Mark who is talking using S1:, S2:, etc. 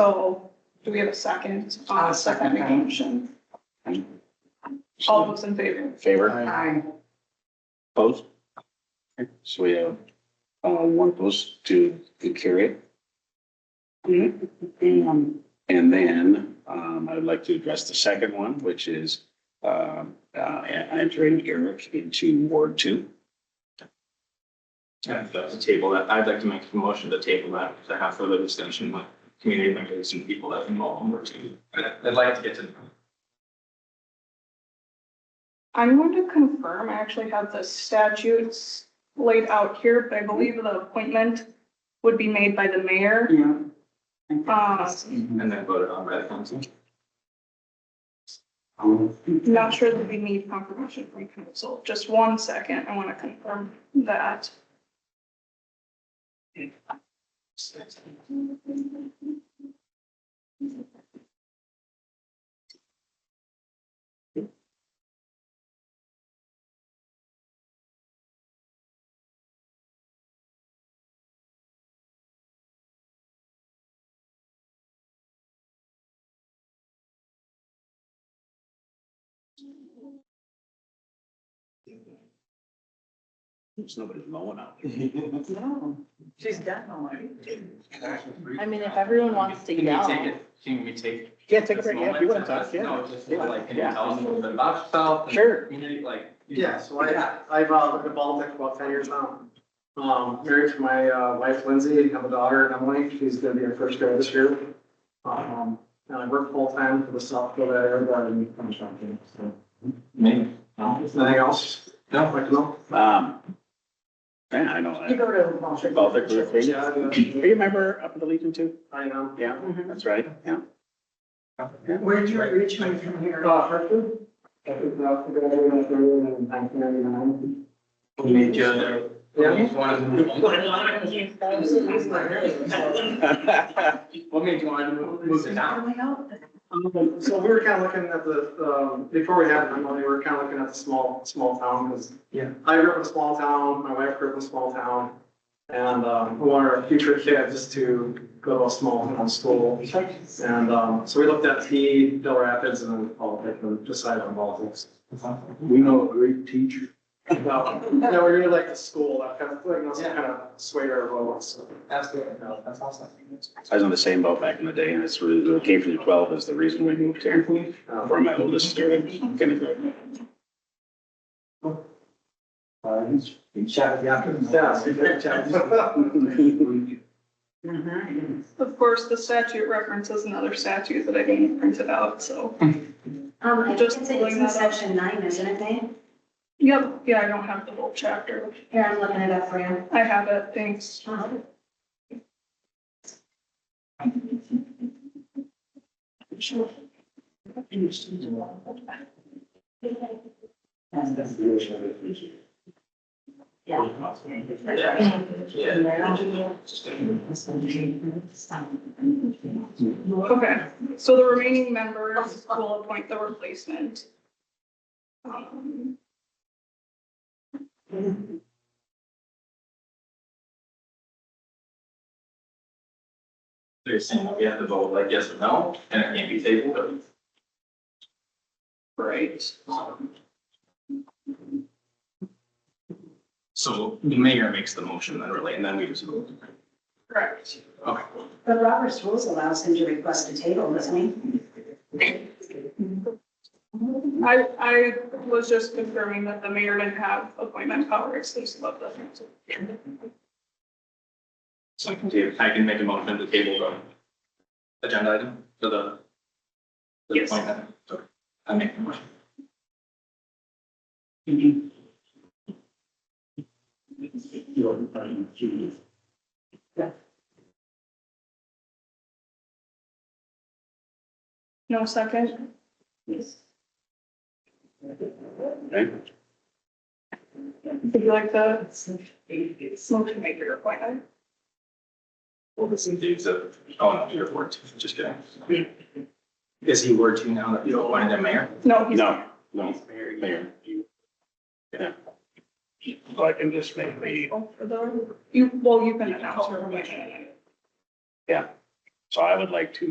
S1: So do we have a second?
S2: I'll second that.
S1: motion. All those in favor?
S3: Favor,
S2: Aye.
S3: opposed? So we have, uh, one opposed to, to carry it.
S2: Um,
S3: And then, um, I would like to address the second one, which is, um, uh, entering Eric into Ward Two.
S4: Yeah, if that's a table that, I'd like to make a motion to table that, to have further discussion with community members and people that involved or two. I'd, I'd like to get to.
S1: I'm going to confirm, I actually have the statutes laid out here, but I believe the appointment would be made by the mayor.
S2: yeah.
S5: Ah.
S1: Uh,
S4: And then vote it on by the council.
S1: not sure that we need confirmation from council. Just one second, I want to confirm that.
S3: There's nobody mowing out there.
S2: No, she's done already.
S6: I mean, if everyone wants to
S4: Can we
S6: yell.
S4: take it- Can we take?
S5: Yeah, take a
S4: this
S5: break. Yeah,
S4: moment
S5: if you want
S4: to
S5: to talk,
S4: just-
S5: yeah.
S4: No, just
S5: Yeah.
S4: like, can you
S5: Yeah.
S4: tell us a little bit about yourself? and
S5: Sure.
S4: Community, like.
S5: Yeah, so I,
S4: Yeah.
S5: I've uh, lived in Baltic for about ten years now. Um, married to my uh, wife Lindsay, have a daughter Emily, she's gonna be our first grad this year. Um, and I work full-time for the South Dakota Air Guard and contracting, so.
S4: Maybe.
S5: Anything else?
S4: No.
S5: Like, no?
S3: Um, yeah, I know.
S2: You
S3: that.
S2: go to Walter.
S3: Baltic River.
S5: Yeah,
S3: Are you
S5: I-
S3: a member up at the Legion too? Mm-hmm.
S5: I know.
S3: Yeah, that's right, yeah.
S2: Where'd you originally from here?
S5: Uh, Hartford? I think South Dakota Air Guard in nineteen ninety-nine.
S4: Meet you there.
S5: Yeah.
S4: What made you want to move, move to now?
S5: Um, So we were kind of looking at the, um, before we had Monday, we were kind of looking at the small, small town, because
S4: Yeah.
S5: I grew up in a small town, my wife grew up in a small town, and, um, we wanted our future kids to go to a small town school. And, um, so we looked at T, Del Rapids, and then Baltic, and decided on Baltics.
S3: We know a great teacher.
S5: Well, No, we really liked the school, that kind of, like, that's kind of swayed our votes.
S4: Absolutely, no, that's awesome.
S3: I was on the same boat back in the day, and it's really, the K through twelve is the reason we moved here.
S5: Um,
S3: For my oldest student, kindergarten.
S5: Yeah. so we did chat.
S1: Of course, the statute references another statute that I didn't print it out, so.
S7: Um, I think
S1: Just
S7: it's in-
S1: pulling
S7: it's
S1: that
S7: in
S1: up.
S7: section nine, isn't it, Dave?
S1: Yep, yeah, I don't have the whole chapter.
S7: Here, I'm looking it up for you.
S1: I have it, thanks.
S7: Um, Yeah.
S1: Okay, so the remaining members will appoint the replacement. Um,
S4: They're saying we have to vote like yes or no, and it can't be tabled.
S1: Right,
S4: So the mayor makes the motion then really, and then we just vote.
S1: correct.
S4: Okay.
S7: But Robert's rules allows him to request a table, doesn't he?
S1: I, I was just confirming that the mayor didn't have appointment power exclusive of the council.
S4: So I can, ta- I can make a motion to table the agenda item for the. for the
S1: Yes.
S4: appointment. Okay. I make the motion.
S1: No second?
S3: Okay.
S1: Would you like the motion maker appointment?
S4: Well, this is Dave's, uh, oh, no, you're Ward two, just kidding. Is he Ward two now that you appointed him mayor?
S1: No, he's.
S3: No, no, mayor. Yeah. So I can just make me.
S1: Oh, for the, you, well, you can announce your appointment.
S3: Yeah. So I would like to